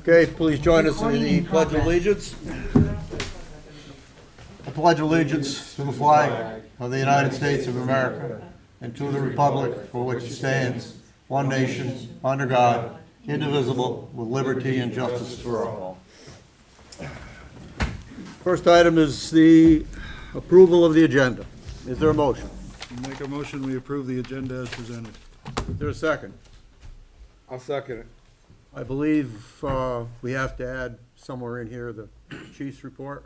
Okay, please join us in the pledge of allegiance. I pledge allegiance to the flag of the United States of America and to the republic for which it stands, one nation, under God, indivisible, with liberty and justice for all. First item is the approval of the agenda. Is there a motion? Make a motion, we approve the agenda as presented. Is there a second? I'll second it. I believe uh, we have to add somewhere in here the chief's report.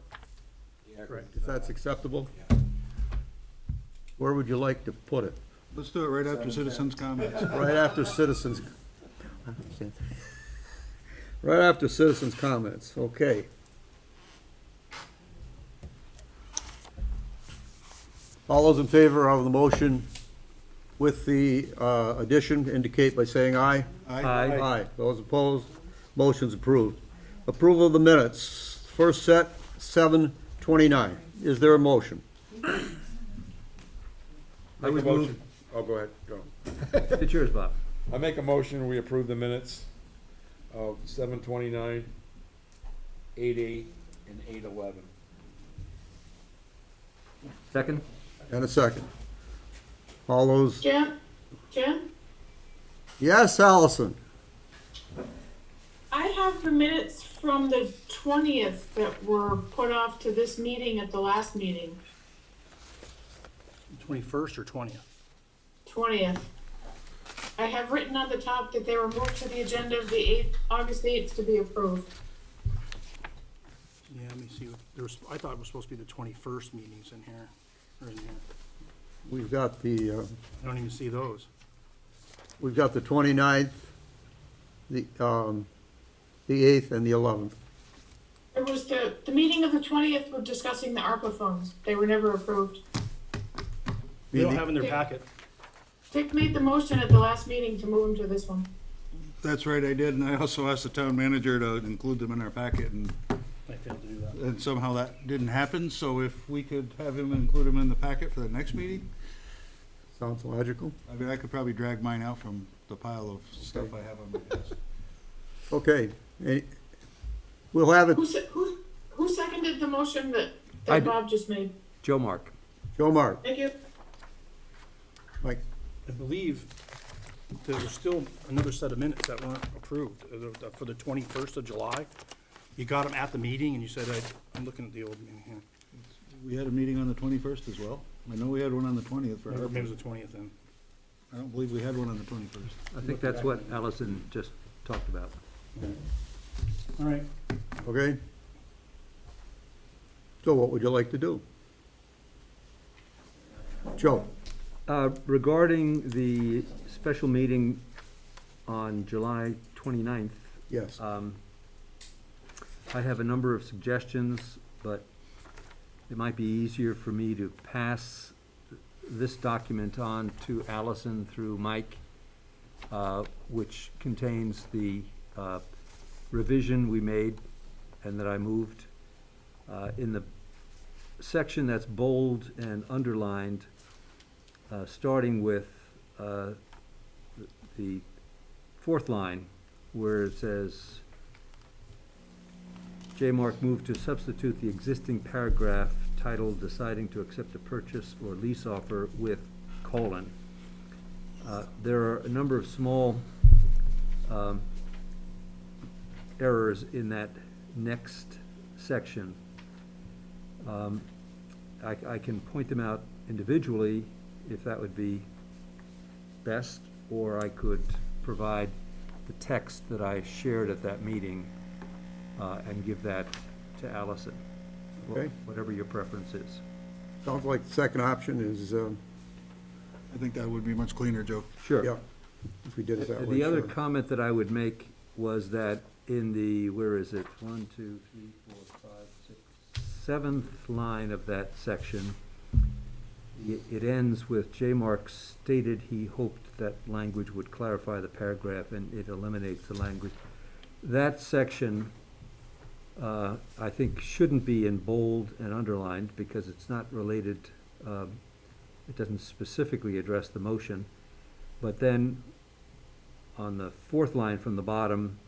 Correct. If that's acceptable. Where would you like to put it? Let's do it right after citizens' comments. Right after citizens. Right after citizens' comments, okay. All those in favor of the motion with the uh, addition indicate by saying aye. Aye. Aye. Those opposed, motion's approved. Approval of the minutes, first set, seven twenty-nine. Is there a motion? I would move. Oh, go ahead, go. It's yours, Bob. I make a motion, we approve the minutes of seven twenty-nine, eight eight, and eight eleven. Second? And a second. All those, Jim, Jim, yes, Allison? I have the minutes from the twentieth that were put off to this meeting at the last meeting, Twenty-first or twentieth? twentieth. I have written on the top that they were moved to the agenda of the eighth, August eighth to be approved. Yeah, let me see, what- there was, I thought it was supposed to be the twenty-first meetings in here, or in here. We've got the, uh, I don't even see those. we've got the twenty-ninth, the, um, the eighth, and the eleventh. It was the, the meeting of the twentieth were discussing the ARPA funds. They were never approved. They don't have in their packet. Dick made the motion at the last meeting to move them to this one. That's right, I did, and I also asked the town manager to include them in our packet, and, I failed to do that. and somehow that didn't happen, so if we could have him include them in the packet for the next meeting, Sounds logical. I mean, I could probably drag mine out from the pile of stuff I have on my desk. Okay, eh, we'll have it, Who, se- who, who seconded the motion that, I that did. Bob just made? Joe Mark. Joe Mark, Thank you. Mike, I believe there was still another set of minutes that weren't approved uh, the- for the twenty-first of July. You got them at the meeting and you said, I- I'm looking at the old meeting here, We had a meeting on the twenty-first as well. I know we had one on the twentieth for or maybe it was ARPA. the twentieth then. I don't believe we had one on the twenty-first. I think that's what Allison just talked about. All right, okay? So what would you like to do? Joe? Uh, Regarding the special meeting on July 29th, Yes, um, I have a number of suggestions, but it might be easier for me to pass this document on to Allison through Mike, uh, which contains the uh, revision we made and that I moved. Uh, In the section that's bold and underlined, uh, starting with uh, th- the fourth line, where it says, J. Mark moved to substitute the existing paragraph titled deciding to accept a purchase or lease offer with colon. Uh, There are a number of small um, errors in that next section. Um, I, I can point them out individually if that would be best, or I could provide the text that I shared at that meeting uh, and give that to Allison. wha- Okay. Whatever your preference is. sounds like the second option is, um, I think that would be much cleaner, Joe. Sure. yeah, if we did it that way. Uh, The other sure. comment that I would make was that in the, where is it, one, two, three, four, five, six, seventh line of that section, it, it ends with J. Mark stated he hoped that language would clarify the paragraph and it eliminates the language. That section, uh, I think shouldn't be in bold and underlined because it's not related, um, it doesn't specifically address the motion. But then on the fourth line from the bottom,